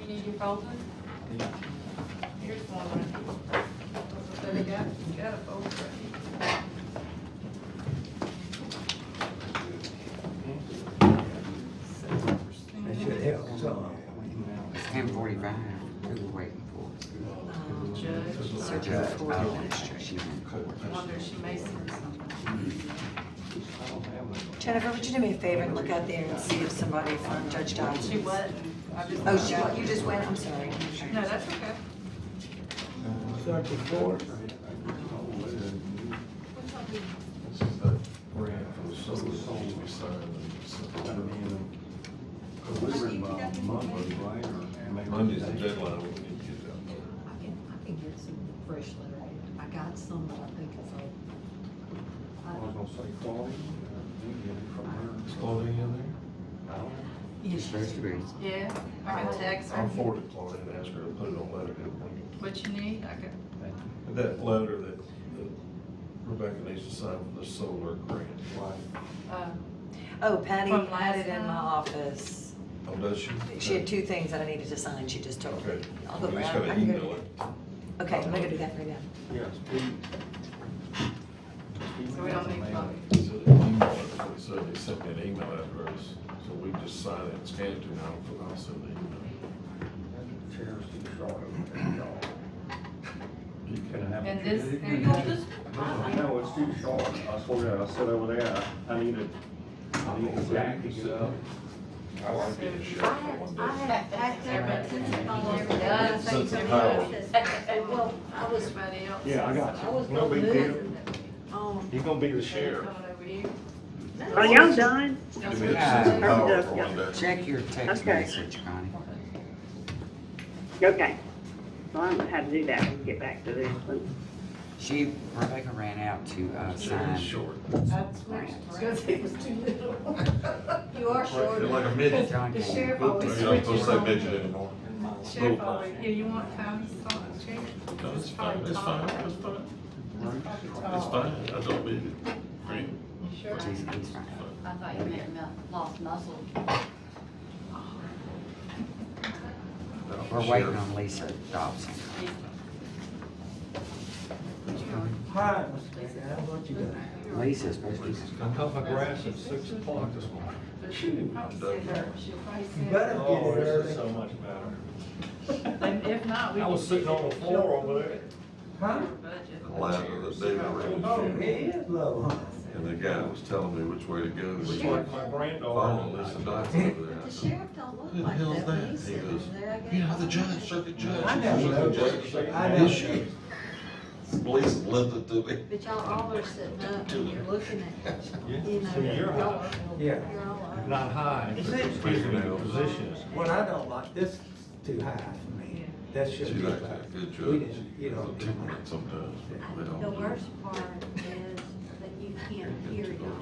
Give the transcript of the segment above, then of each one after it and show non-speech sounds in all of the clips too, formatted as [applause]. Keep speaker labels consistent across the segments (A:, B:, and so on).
A: You need your folder? Here's one right here. So they got, got a folder right here.
B: That should help some.
C: It's ten forty-five, we were waiting for.
A: Um, Judge,
C: The
A: search
C: judge,
A: for
C: oh,
A: it.
C: she was in court.
A: I wonder if she may send something.
D: Jennifer, would you do me a favor and look out there and see if somebody from Judge Dodds?
A: She wasn't. I just-
D: Oh, she, wa- you just went, I'm sorry.
A: No, that's okay.
B: Thirty-four.
E: This is that grant for the solar panels we signed in September.
F: Because we were involved uh, Monday, right, or maybe.
E: Monday's the deadline, we need to get it out.
G: I can, I can get some fresh letter. I got some, but I think it's old.
F: I was
G: I-
F: gonna say Chloe, uh, we get it from
E: Is
F: her.
E: Claudia in
F: I don't know.
G: Yes,
C: It's supposed to be.
A: Yeah, I can text
E: there? I'll
A: her.
E: forward it to Claudia and ask her to put it on letter. and bring it.
A: What you need, I can.
E: And That letter that that Rebecca needs to sign for the solar grant.
A: uh,
D: Oh, Patty
A: From
D: had
A: last
D: it in my
A: time?
D: office.
E: Oh, does she?
D: She had two things that I needed to sign, she just told me.
E: Okay.
D: I'll go
E: You just
D: grab-
E: gotta
D: I can go do
E: email it.
D: that. Okay, I'm gonna do that right now.
F: Yes, we.
A: So we don't need Chloe.
E: So they email it, they said they sent me an email address, so we just sign it, scan it to them, and I'll send the email.
F: Chairs too short over there, y'all. You can have.
A: And this, there you go, this.
F: No, it's too short. I swear, to God, I sit over there, I- I need it. I need it back to get up.
E: I like being a sheriff for one
G: I
E: day.
G: had, I had, since it's my
A: Yeah,
G: letter.
E: Since the power.
G: Well, I was,
A: Everybody else.
F: Yeah, I got
G: I
F: you.
G: was
F: No
G: gonna
F: big
G: move. Um,
F: He's gonna be the
A: Coming
F: sheriff.
A: over here.
H: Are y'all done?
E: To be a sense of power for one day.
C: Check your text
H: Okay.
C: message, Connie.
H: Okay. Well, I don't know how to do that when we get back to this one.
C: She, Rebecca ran out to, uh,
E: Sure,
C: sign.
E: it's short.
G: you are short.
E: You're like a midget.
C: John
A: The
C: came.
A: sheriff
E: You're
A: always
E: not supposed
A: switches
E: to say
A: on.
E: midget anymore.
A: Sheriff always, yeah, you want Connie's song, Sheriff?
E: No, it's fine, it's fine, it's fine, Oh. it's fine, I don't need it. Right?
A: You sure?
C: He's- he's fine.
I: I thought you meant mu- lost muscle.
E: No,
C: We're waiting
E: sheriff.
C: on Lisa Dobson.
B: Hi, Mr. Baker, how about you guys?
C: Lisa's supposed to be.
E: I cut my grass at six o'clock this morning.
A: She'll probably send her, she'll probably
B: You
A: send
B: better
A: her.
B: get
F: Oh,
B: it early.
F: so much better.
A: And if not, we.
F: I was
A: can
F: sitting
A: get
F: on the
A: it.
F: floor over there.
B: Huh?
A: Budget.
E: Ladder that David ran.
B: Oh, it is low, huh?
E: And the guy was telling me which way to go. and
F: It's
E: he
F: like
E: was
F: my
E: Following
F: granddaughter.
E: Lisa Dodson over there. I
G: The
E: said,
G: sheriff don't look
E: Who the
G: like that.
E: hell's
G: when
E: that?
G: he's
E: He
G: sitting
E: goes,
G: there, I guess.
E: Yeah, the judge, circuit judge.
B: I never
E: circuit
B: know.
E: judge."
B: I never
E: Is she? Police lifted to me.
G: But y'all all are
E: [laughs]
G: sitting up and you're looking at, you know,
F: So you're
G: y'all
F: high.
G: are,
B: Yeah.
G: you're all up.
F: Not high, but excuse me, the position is.
B: What I don't like, this is too high for me. That
E: She
B: should be
E: like
B: like,
E: that, good
B: we
E: judge.
B: didn't, you know.
E: Temperament sometimes. but they don't
G: The
E: do it.
G: worst part is that you can't
E: Good
G: hear
E: judge,
G: y'all.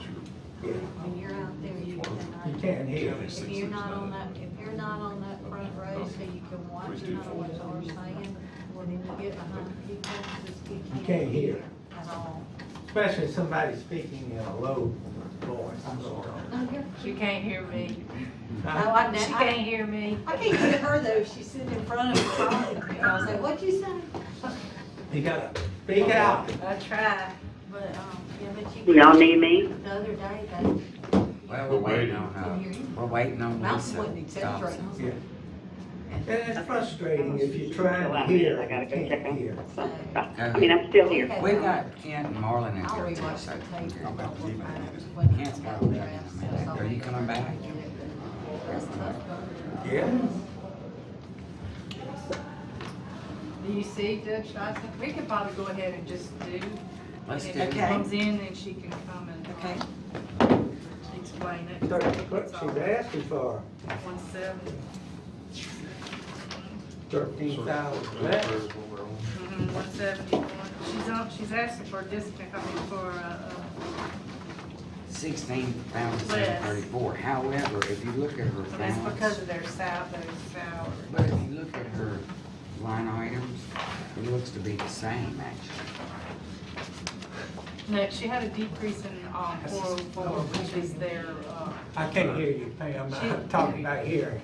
B: yeah.
G: When you're out there, you
B: You
G: cannot.
B: can't hear me.
G: If you're not on that, if you're not on that front row, so you can watch, you know what they're saying, when you get behind people, just you
B: You
G: can't.
B: can't hear.
G: At all.
B: Especially somebody speaking in a low voice. I'm sorry.
A: She can't hear me.
G: Oh,
B: Huh?
G: I,
A: She
G: know-
A: can't
G: I,
A: hear me.
G: I can't hear her though, if she's sitting in front of me talking, you know, I was like, what'd you say? Um,
B: You gotta speak out.
A: I try.
G: But, um, yeah, but you.
H: Y'all need me?
G: The other day, that
C: Well, we're waiting on,
G: Couldn't
C: uh,
G: hear you.
C: we're waiting on
G: mountain
C: Lisa
G: wouldn't accept right
C: Dobson.
B: Yeah. And it's frustrating if you're trying to hear,
H: I gotta
B: you
H: go check
B: can't
H: on-
B: hear.
H: I mean, I'm still here.
C: We've got Kent and Marlon in
G: I'll
C: here too,
G: rewatch
C: so.
G: the tape.
C: Kent's got to leave in a minute. Are you coming back?
G: That's tough.
B: Yeah.
A: Do you see Judge Johnson? We could probably go ahead and just do.
C: Let's do
A: If
C: it.
A: she comes in, then she can come and. uh,
D: Okay.
A: Explain it.
B: Clerk, clerk, she's asking for
A: One seventy.
B: thirteen thousand
E: Good
B: less.
E: prayers when we're on.
A: Mhm, 171. She's on, she's asking for discipline, I mean, for, uh,
C: Sixteen thousand seven thirty-four. However, if you look at her
A: uh, that's because
C: balance,
A: of their sal, their salary.
C: but if you look at her line items, it looks to be the same actually.
A: No, she had a decrease in, um, four oh four, which is their, uh,
B: I can't hear you, Pam. I'm talking about hearing.